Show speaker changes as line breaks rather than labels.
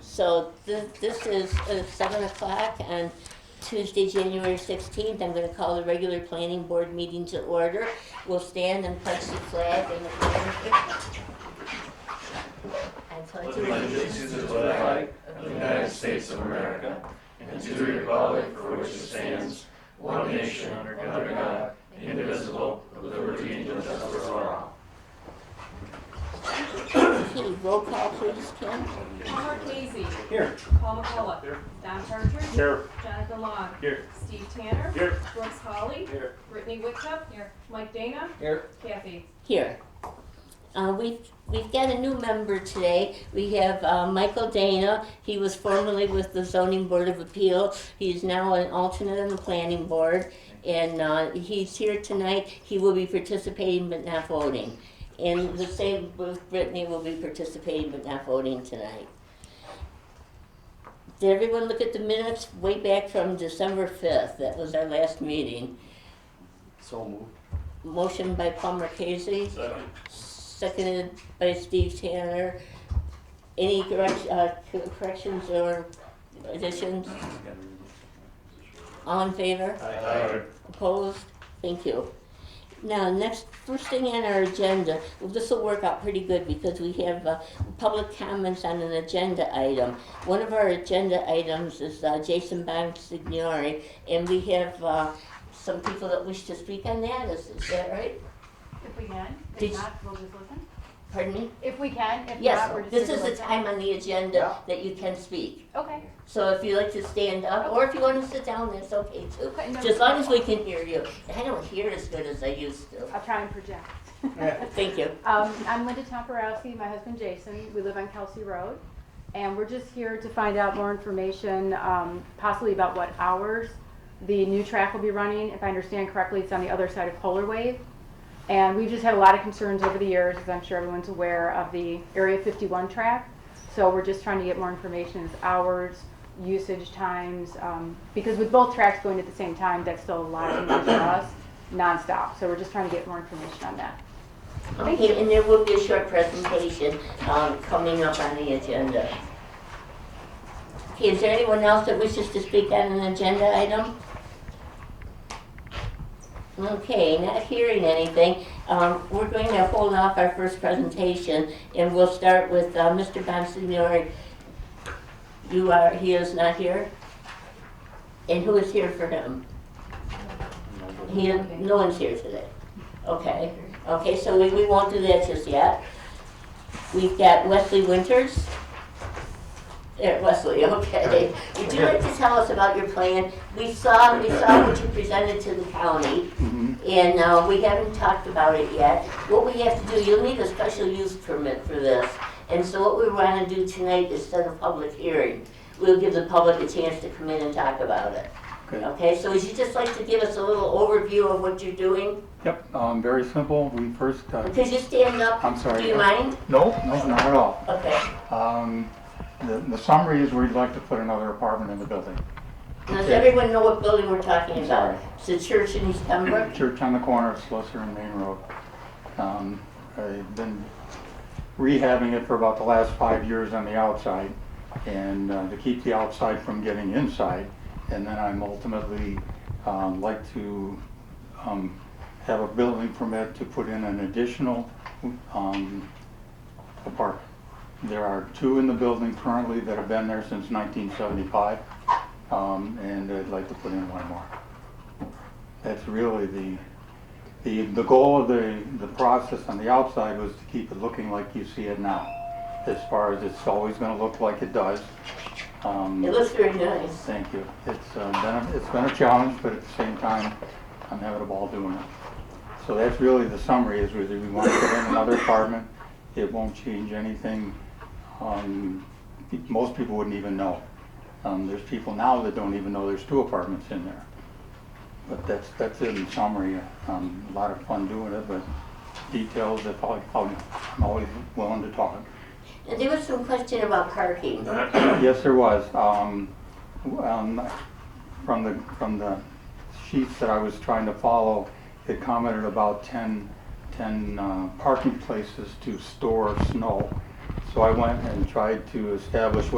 So this, this is uh, seven o'clock on Tuesday, January sixteenth. I'm gonna call the regular planning board meeting to order. We'll stand and pledge the flag and the flag. I pledge allegiance
allegiance to the flag of the United States of America and to the republic for which it stands, one nation under God, indivisible, with liberty and justice for all.
Okay, roll call please, Kim.
Paul Daisy.
Here.
Paul McCullough.
Here.
Don Partridge.
Here.
Jonathan Long.
Here.
Steve Tanner.
Here.
Brooks Hawley.
Here.
Brittany Whitcup. Here. Mike Dana.
Here.
Kathy.
here. Uh, we've, we've got a new member today. We have uh, Michael Dana. He was formerly with the Zoning Board of Appeal. He's now an alternate on the Planning Board. And uh, he's here tonight. He will be participating but not voting. And the same with Brittany will be participating but not voting tonight. Did everyone look at the minutes way back from December 5th? That was our last meeting.
So moved.
Motion by Palmer Casey,
Second.
Seconded by Steve Tanner. Any correct, uh, corrections or additions? All in favor?
Aye.
Opposed? Thank you. Now, next, first thing on our agenda, well, this will work out pretty good because we have, uh, public comments on an agenda item. One of our agenda items is, uh, Jason Bond Signori, and we have, uh, some people that wish to speak on that, is, is that right?
If we can,
Did-
if not, we'll just listen.
Pardon me?
If we can, if
Yes,
not, we're just
this
gonna
is the
listen.
time on the agenda that you can speak.
Okay,
So if you'd like to stand up, or if you want to sit down, that's okay too.
Okay, no.
Just as long as we can hear you. I don't hear as good as I used to.
I'll try and project.
Thank you.
Um, I'm Linda Tomporowski, my husband Jason, we live on Kelsey Road, and we're just here to find out more information, um, possibly about what hours the new track will be running. If I understand correctly, it's on the other side of Polar Wave. And we've just had a lot of concerns over the years, as I'm sure everyone's aware, of the Area 51 track. So we're just trying to get more information as hours, usage times, um, because with both tracks going at the same time, that's still a lot of noise for us, nonstop. So we're just trying to get more information on that. Thank
Okay, and there will be a short presentation um, coming up on the agenda. Okay, is there anyone else that wishes to speak on an agenda item? Okay, not hearing anything, um, we're going to hold off our first presentation, and we'll start with uh, Mr. Bonsignori. You are, he is not here? And who is here for him? He, no one's here today. Okay. Okay, so we, we won't do that just yet. We've got Wesley Winters. There, Wesley, okay. Would you like to tell us about your plan? We saw, we saw what you presented to the county, and, uh, we haven't talked about it yet. What we have to do, you'll need a special use permit for this, and so what we wanna do tonight is set a public hearing. We'll give the public a chance to come in and talk about it.
Okay.
Okay, so would you just like to give us a little overview of what you're doing?
Yep, um, very simple. We first, uh,
Could you stand up?
I'm sorry.
Do you mind?
No, no, not at all.
Okay.
Um, the, the summary is we'd like to put another apartment in the building.
Now, does
Okay.
everyone know what building we're talking about? It's the church in East Pembroke?
Church on the corner of Slusser and Main Road. Um, I've been rehabbing it for about the last five years on the outside and uh, to keep the outside from getting inside. And then I'm ultimately, um, like to, um, have a building permit to put in an additional, um, apartment. There are two in the building currently that have been there since nineteen seventy-five. Um, and I'd like to put in one more. That's really the, the, the goal of the, the process on the outside was to keep it looking like you see it now. As far as it's always gonna look like it does. Um,
It looks very nice.
Thank you. It's uh, been, a- it's been a challenge, but at the same time, I'm having a ball doing it. So that's really the summary, is we we want to put in another apartment. It won't change anything. Um, pe- Most people wouldn't even know. Um, There's people now that don't even know there's two apartments in there. But that's, that's it in summary. Um, A lot of fun doing it, but details, if I- I'm always willing to talk.
And there was some question about parking.
Yes, there was. Um, um, From the, from the sheets that I was trying to follow, it commented about 10, 10 uh, parking places to store snow. So I went and tried to establish